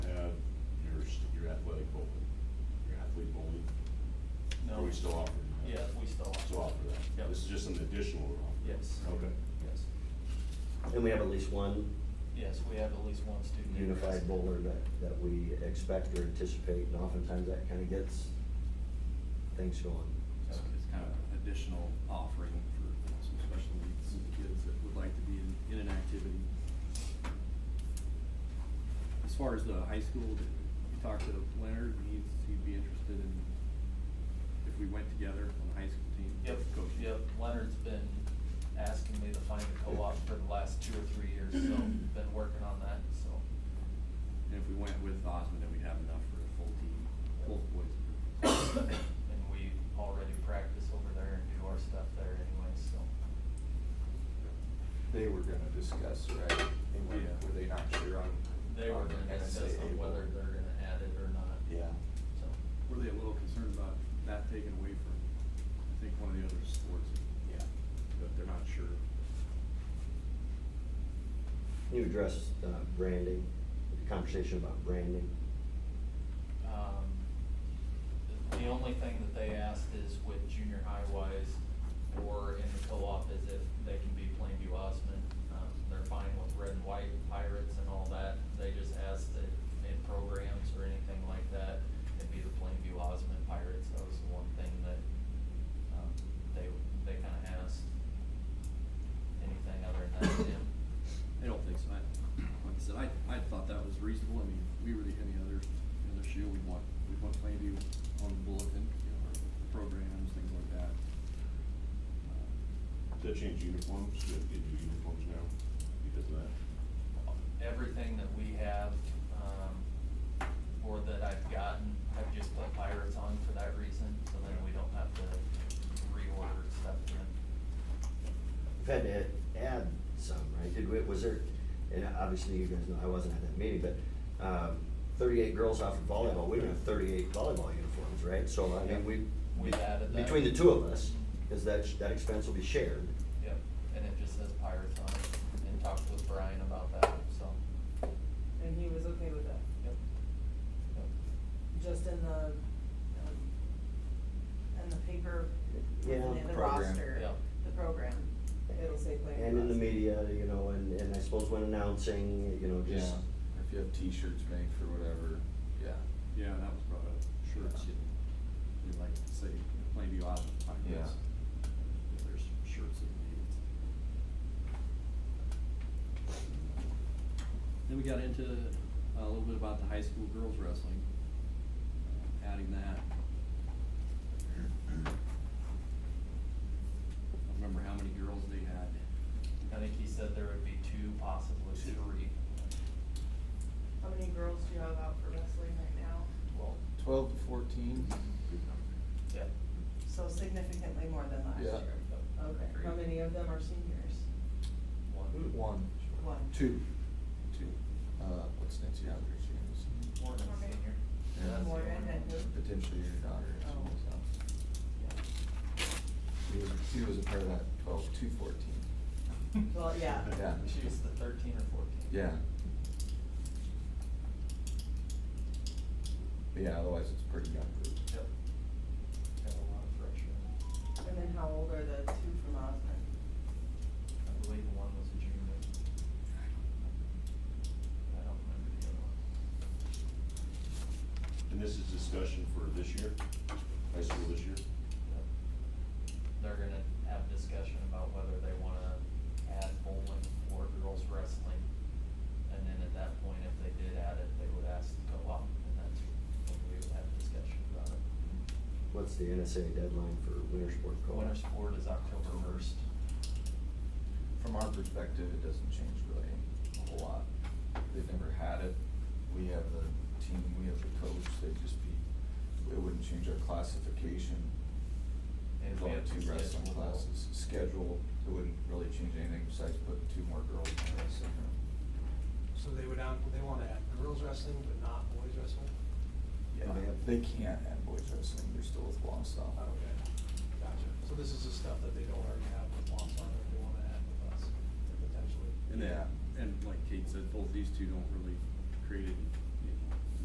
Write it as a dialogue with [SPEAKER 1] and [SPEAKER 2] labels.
[SPEAKER 1] uh,
[SPEAKER 2] just an additional room?
[SPEAKER 3] Yes.
[SPEAKER 2] Okay.
[SPEAKER 3] Yes.
[SPEAKER 1] And we have at least one
[SPEAKER 3] Yes, we have at least one student.
[SPEAKER 1] unified bowler that, that we expect or anticipate, and oftentimes that kind of gets things going.
[SPEAKER 4] So it's kind of an additional offering for some special needs kids that would like to be in, in an activity. As far as the high school, we talked to Leonard, and he's, he'd be interested in if we went together on the high school team.
[SPEAKER 3] Yep,
[SPEAKER 4] coaching.
[SPEAKER 3] yep, Leonard's been asking me to find a co-op for the last two or three years, so been working on that, so.
[SPEAKER 4] And if we went with Osmond, then we'd have enough for a full team, both boys. and girls.
[SPEAKER 3] And we already practice over there and do our stuff there anyway, so.
[SPEAKER 5] They were gonna discuss, right? They were,
[SPEAKER 4] Yeah.
[SPEAKER 5] were they not sure on?
[SPEAKER 3] They were
[SPEAKER 5] on
[SPEAKER 3] gonna discuss
[SPEAKER 5] NSAA
[SPEAKER 3] on whether
[SPEAKER 5] board?
[SPEAKER 3] they're gonna add it or not.
[SPEAKER 5] Yeah.
[SPEAKER 3] So,
[SPEAKER 4] Were they a little concerned about that taken away from, I think, one of the other sports,
[SPEAKER 5] Yeah.
[SPEAKER 4] but they're not sure.
[SPEAKER 1] Can you address uh, branding, the conversation about branding?
[SPEAKER 3] um, the only thing that they asked is with junior high wise or in the co-op is if they can be Plainview Osmond. Um, they're fine with red and white pirates and all that. They just asked that in programs or anything like that, it'd be the Plainview Osmond Pirates. That was the one thing that, um, they, they kinda asked. Anything other than that, Tim?
[SPEAKER 4] I don't think so. I, like I said, I, I thought that was reasonable. I mean, if we were the, any other, other shoe, we'd want, we'd want Plainview on the bulletin, you know, our programs, things like that. Uh,
[SPEAKER 2] Did they change uniforms? Did they do uniforms now because of that?
[SPEAKER 3] everything that we have, um, or that I've gotten, I've just put pirates on for that reason, so then we don't have to reorder stuff again.
[SPEAKER 1] We've had to add some, right? Did we, was there, and obviously you guys know I wasn't at that meeting, but um, thirty-eight girls off of volleyball, we don't have thirty-eight volleyball uniforms, right? So I mean, we.
[SPEAKER 3] We've added that.
[SPEAKER 1] Between the two of us, is that, that expense will be shared.
[SPEAKER 3] Yep, and it just says pirates on it, and talked with Brian about that, so,
[SPEAKER 6] And he was okay with that,
[SPEAKER 3] yep. Yep.
[SPEAKER 6] just in the, um, in the paper,
[SPEAKER 1] Yeah.
[SPEAKER 6] in the
[SPEAKER 5] Program.
[SPEAKER 6] roster,
[SPEAKER 3] Yeah.
[SPEAKER 6] the program, it'll say Plainview.
[SPEAKER 1] And in the
[SPEAKER 6] Ross.
[SPEAKER 1] media, you know, and, and I suppose when announcing, you know,
[SPEAKER 5] Yeah,
[SPEAKER 1] just,
[SPEAKER 5] if you have t-shirts made for whatever, yeah.
[SPEAKER 4] Yeah, that was brought up. Shirts, you know, they'd like to say you know, Plainview Island
[SPEAKER 5] Yeah.
[SPEAKER 4] Pirates. If there's shirts that you need. Then we got into uh, a little bit about the high school girls wrestling, uh, adding that. I don't remember how many girls they had.
[SPEAKER 3] I think he said there would be two, possibly
[SPEAKER 4] Two.
[SPEAKER 3] three.
[SPEAKER 6] How many girls do you have out for wrestling right now?
[SPEAKER 3] Well,
[SPEAKER 5] Twelve to fourteen.
[SPEAKER 3] yeah.
[SPEAKER 6] So significantly more than last
[SPEAKER 5] Yeah.
[SPEAKER 6] year. Okay, how many of them are seniors?
[SPEAKER 3] One.
[SPEAKER 5] One.
[SPEAKER 6] One.
[SPEAKER 5] Two. Two. Uh, what's Nancy Alder's name?
[SPEAKER 3] Morgan
[SPEAKER 6] Morgan.
[SPEAKER 3] senior.
[SPEAKER 5] Yeah.
[SPEAKER 3] That's the
[SPEAKER 6] Morgan
[SPEAKER 3] only
[SPEAKER 6] and
[SPEAKER 3] one.
[SPEAKER 6] who?
[SPEAKER 5] Potentially your daughter. so
[SPEAKER 6] Oh.
[SPEAKER 3] Yeah.
[SPEAKER 5] She was, she was a part of that twelve to fourteen.
[SPEAKER 4] Oh,
[SPEAKER 6] Well, yeah.
[SPEAKER 5] Yeah.
[SPEAKER 3] She was the thirteen or fourteen.
[SPEAKER 5] Yeah. But yeah, otherwise it's a pretty young group.
[SPEAKER 3] Yep. Got a lot of pressure.
[SPEAKER 6] And then how old are the two from Osmond?
[SPEAKER 3] I believe one was a junior. I don't remember the other one.
[SPEAKER 2] And this is discussion for this year, high school this year?
[SPEAKER 3] Yep. They're gonna have discussion about whether they wanna add bowling or girls wrestling. And then at that point, if they did add it, they would ask to go up, and that's when we would have discussion about it.
[SPEAKER 1] what's the NSA deadline for winter sport co-op?
[SPEAKER 3] Winter sport is October first.
[SPEAKER 5] From our perspective, it doesn't change really a whole lot. They've never had it. We have the team, we have the coach, they'd just be, it wouldn't change our classification.
[SPEAKER 3] And we
[SPEAKER 5] There's only
[SPEAKER 3] have
[SPEAKER 5] two
[SPEAKER 3] to
[SPEAKER 5] wrestling
[SPEAKER 3] schedule-
[SPEAKER 5] classes. Schedule, it wouldn't really change anything besides putting two more girls in the wrestling room.
[SPEAKER 7] So they would, out- they want to add girls wrestling, but not boys wrestling?
[SPEAKER 5] Yeah,
[SPEAKER 1] Okay.
[SPEAKER 5] they can't add boys wrestling, they're still with Wausau.
[SPEAKER 7] Okay, gotcha. So this is the stuff that they don't already have with Wausau that they want to add with us, potentially?
[SPEAKER 4] And
[SPEAKER 5] Yeah.
[SPEAKER 4] then, and like Kate said, both these two don't really create any